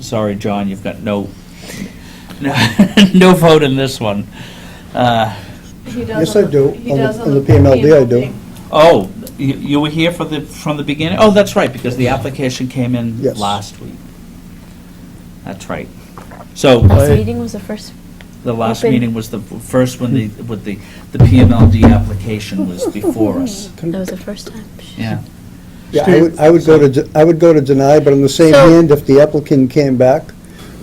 sorry, John, you've got no, no vote in this one. Uh, He does Yes, on I do. the- he On the- does on the PMLD, I do. PMLD. Oh, you, you were here for the, from the beginning? Oh, that's right, because the application came in Yes. last week. That's right. So, Last This I- meeting was the first, the last Open. meeting was the first when the, with the, the PMLD application was before us. that was the first time. Yeah. Yeah, I would, I would go to, de- I would go to deny, but on the same So- hand, if the applicant came back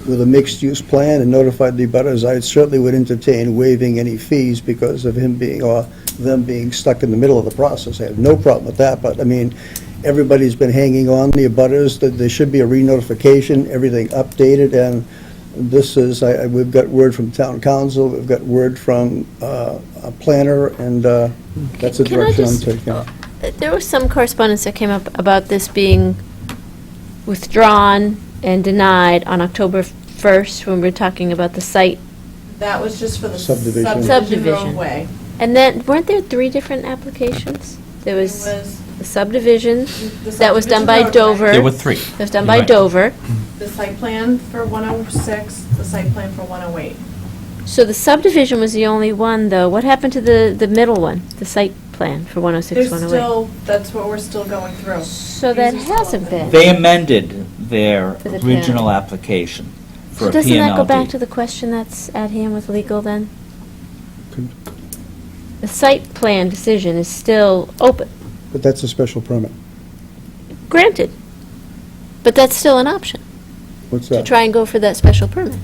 with a mixed-use plan and notified the abutters, I certainly would entertain waiving any fees because of him being, or them being stuck in the middle of the process. I have no problem with that, but, I mean, everybody's been hanging on, the abutters, that there should be a re-notification, everything updated, and this is, I, I- we've got word from town council, we've got word from, uh, a planner, and, uh, that's the Can I direction I'm just- taking. Uh, There was some correspondence that came up about this being withdrawn and denied on October 1st, when we were talking about the site. That was just for the Subdivision. subdivision Subdivision. roadway. And then, weren't there three different applications? There was It was the subdivision, The that was done by subdivision roadway. Dover. There were three. that was done You're by right. Dover. the site plan for 106, the site plan for 108. So the subdivision was the only one, though. What happened to the, the middle one, the site plan for 106, There's 108? still, that's what we're still going through. So that These are still hasn't open. been. They amended their For the PMLD. original application for So a PMLD. doesn't that go back to the question that's at hand with legal, then? Could- The site plan decision is still open, But that's a special permit. granted, but that's still an option, What's to that? try and go for that special permit.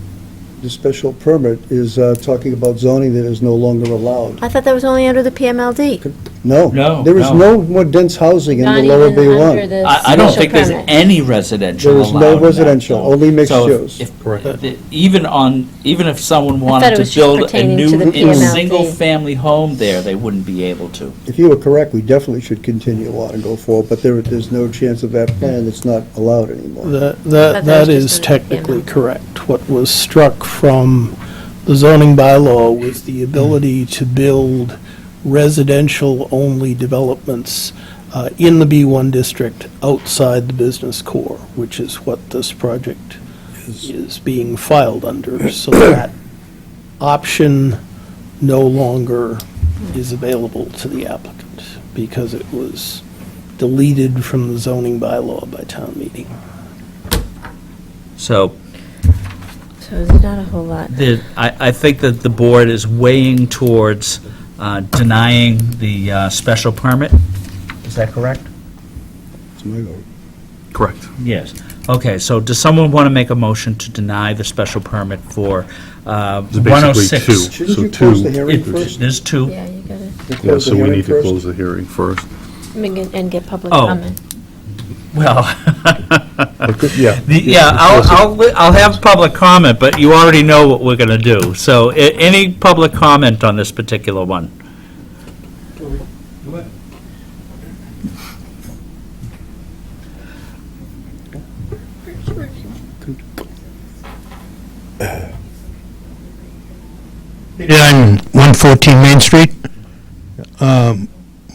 The special permit is uh, talking about zoning that is no longer allowed. I thought that was only under the PMLD, No. No, There is no. no more dense housing in the not lower even under B1. the I, I don't special think there's permit. any residential There allowed is no in that residential, zone. only mixed So if- use. if- Correct. the- Even on, even if someone thought it wanted was to just build a pertaining to new, the in PMLD. single-family home there, they wouldn't be able to. If you were correct, we definitely should continue on and go forward, but there, there's no chance of that plan that's not allowed anymore. That, But that that that was is just under the technically PML. correct. What was struck from the zoning bylaw was the ability to build residential-only developments uh, in the B1 district outside the business core, which is what this project is being filed under. So that option no longer is available to the applicant because it was deleted from the zoning bylaw by town meeting. So So there's not a whole lot. the, I, I think that the board is weighing towards uh, denying the uh, special permit. Is that correct? That's my vote. Correct. Yes. Okay, so does someone want to make a motion to deny the special permit for uh, It's basically 106? two. Shouldn't So you close the two- hearing It- first? There's two. Yeah, you gotta, You Yeah, close the so we hearing need to first? close the hearing first. I mean, and- and get public Oh. comment. Well, Yeah. The- Yeah, I'll, I'll, li- I'll have public comment, but you already know what we're going to do. So a- any public comment on this particular one? Yeah, on 114 Main Street. Um,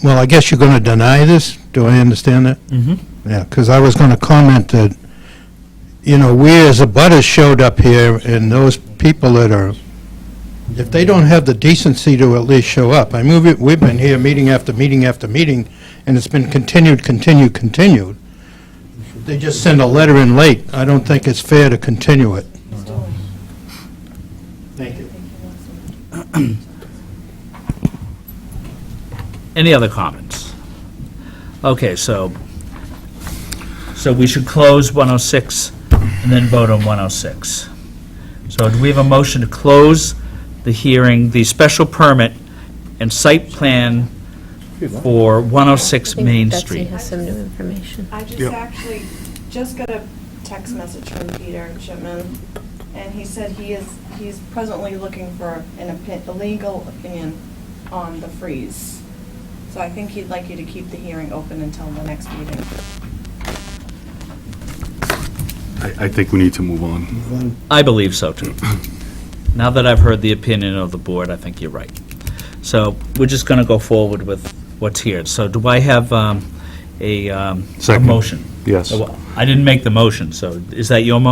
Well, I guess you're going to deny this? Do I understand that? Mhm. Yeah, because I was going to comment that, you know, we as a butters showed up here, and those people that are, if they don't have the decency to at least show up, I move it, we've been here meeting after meeting after meeting, and it's been continued, continued, continued. They just send a letter in late. I don't think it's fair to continue it. Thank you. Any other comments? Okay, so, so we should close 106 and then vote on 106. So do we have a motion to close the hearing, the special permit and site plan for 106 I think Main Betsy Street? has some new information. I just Yep. actually just got a text message from Peter Shipman, and he said he is, he's presently looking for an opi- a legal opinion on the freeze. So I think he'd like you to keep the hearing open until the next meeting. I, I think we need to move on. I believe so, too. Now that I've heard the opinion of the board, I think you're right. So we're just going to go forward with what's here. So do I have um, a um, a Second. motion? Yes. Well, I didn't make the motion, so is that your motion?